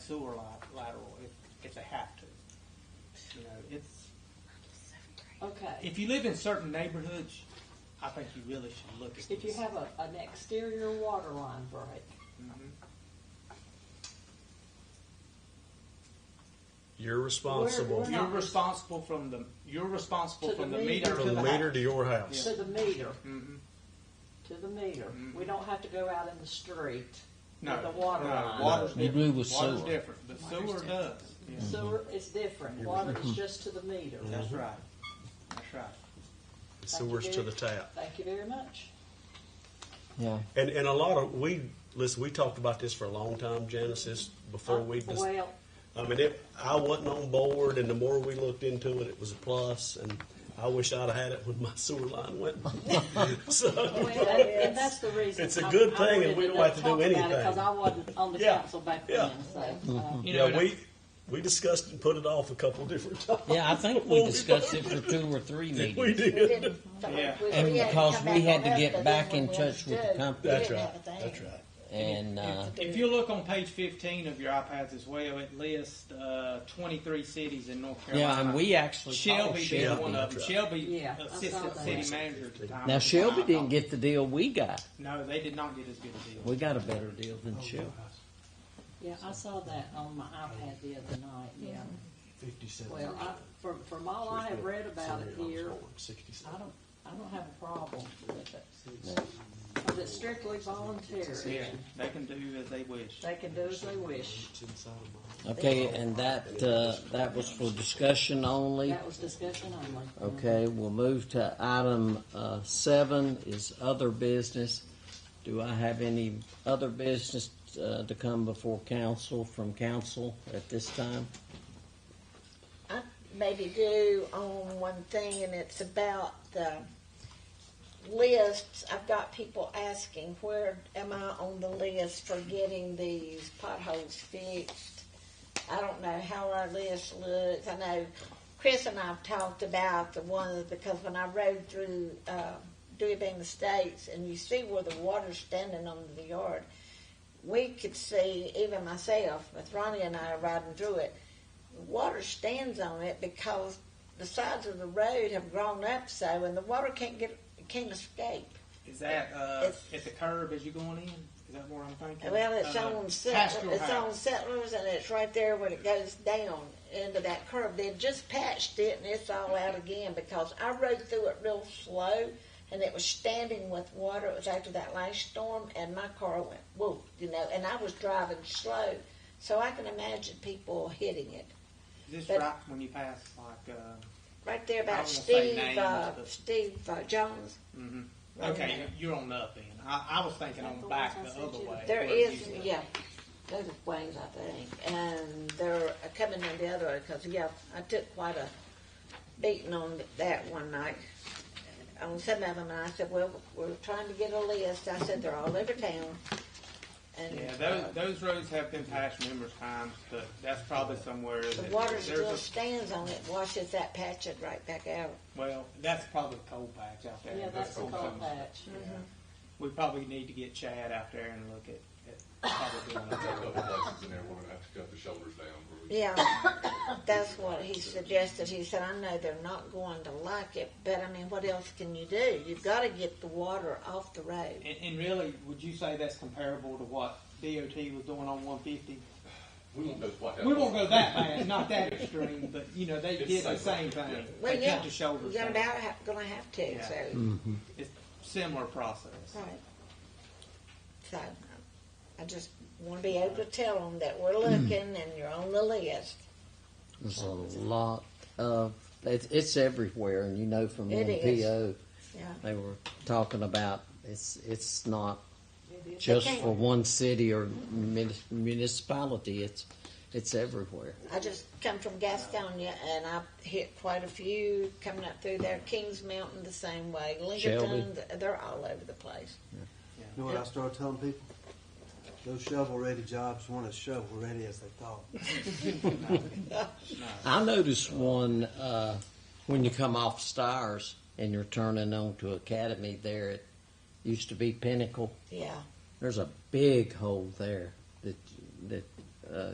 sewer li- lateral if, if they have to. You know, it's, Okay, if you live in certain neighborhoods, I think you really should look at this. if you have a, an exterior water line break, Mhm. You're responsible We're You're not- responsible from the, you're responsible To the from the meter. meter from to the the meter house. to your house. to the meter, Mhm. to the meter. We don't have to go out in the street No, with the water no, line. water's You different. do with Water's sewer. different, but sewer does. Mm-hmm. Yeah. Sewer is different, water is just to the meter. That's right. That's right. It's the worst to the tap. Thank you very much. Yeah. And and a lot of we listen. We talked about this for a long time, Janice. This before we. dis- Well, I mean, it, I wasn't on board, and the more we looked into it, it was a plus. And I wish I'd have had it when my sewer line went. so well, and that's the reason. It's a I- good I thing, and we wanted don't have to do talk about it anything. Because I wasn't on the Yeah, council back yeah. Mm-hmm. then, so. uh, You know, yeah, we we discussed and put it off a couple different times. Yeah, I think we discussed it for two or three We meetings. We did. didn't- but Yeah. we- And we had to because come we back had on to us, get but back then in when touch we with the stood, company. we That's didn't right. have a That's thing. right. And uh, If you look on page 15 of your iPads as well, it lists uh, 23 cities in North Carolina. yeah, and we actually called Shelby being Shelby. one of them. Shelby, Yeah, I saw assistant that. city manager at the time. Now was Shelby fired didn't off. get the deal we got. No, they did not get as good a deal. We got a better deal than Shelby. Yeah, I saw that on my iPad the other night, yeah. Fifty-seven. Well, I, from, from all I have read about it here, I don't, I don't have a problem with it. Because it's strictly voluntary. Yeah, they can do as they wish. They can do as they wish. Okay, and that uh, that was for discussion only. That was discussion only. Okay, we'll move to item uh, seven is other business. Do I have any other business uh, to come before council from council at this time? I maybe do on one thing, and it's about the lists. I've got people asking, where am I on the list for getting these potholes fixed? I don't know how our list looks. I know Chris and I've talked about the ones because when I rode through uh, Dewey Bean Estates, and you see where the water's standing on the yard, we could see, even myself, with Ronnie and I riding through it, the water stands on it because the sides of the road have grown up so, and the water can't get can't escape. Is that uh, It's- at the curb as you're going in? Is that where I'm thinking? Well, it's Uh, on Pastoral settlers, it's House. on settlers, and it's right there when it goes down into that curve. They've just patched it, and it's all out again because I rode through it real slow, and it was standing with water. It was after that last storm, and my car went whoop, you know, and I was driving slow, so I can imagine people hitting it. Is this but- right when you pass like? Uh, Right there I about won't say Steve, names, uh, but- Steve uh, Jones. mhm. Right Okay, there. you're on the up end. I, I was thinking on the back the other way. There where it is, usually- yeah, those are ways, I think, and they're coming in the other way, because, yeah, I took quite a beating on that one night. On some of them, and I said, well, we're trying to get a list, I said, they're all over town. And Yeah, uh, those, those roads have been patched numerous times, but that's probably somewhere the that water there's still a, stands on it, washes that patch it right back out. well, that's probably a coal patch out there. Yeah, that's a coal coal zone. patch. Yeah. We probably need to get Chad out there and look at, at probably doing There's a that. couple places in there we're gonna have to cut the shoulders down. where we- Yeah, that's what he suggested. He said, I know they're not going to like it, but I mean, what else can you do? You've got to get the water off the road. And, and really, would you say that's comparable to what DOT was doing on one fifty? We won't go quite that. We won't far. go that bad, not that extreme, but you know, they It's did the same same. thing. Well, They yeah, cut the shoulders You're down. about ha- gonna have to, Yeah. so It's similar process. right. So I just want to be able to tell them that we're looking and you're on the list. There's a lot of it's, it's everywhere, and you know from It is. NPO Yeah, they were talking about it's it's not just Okay. for one city or mun- municipality. It's it's everywhere. I just come from Gastonia and I hit quite a few coming up through there. Kings Mountain the same way, Lincoln, they're all over the place. You know what I started telling people? Those shovel-ready jobs weren't as shovel-ready as they thought. I noticed one uh, when you come off Stars and you're turning on to Academy there. It used to be Pinnacle. Yeah. There's a big hole there that that uh,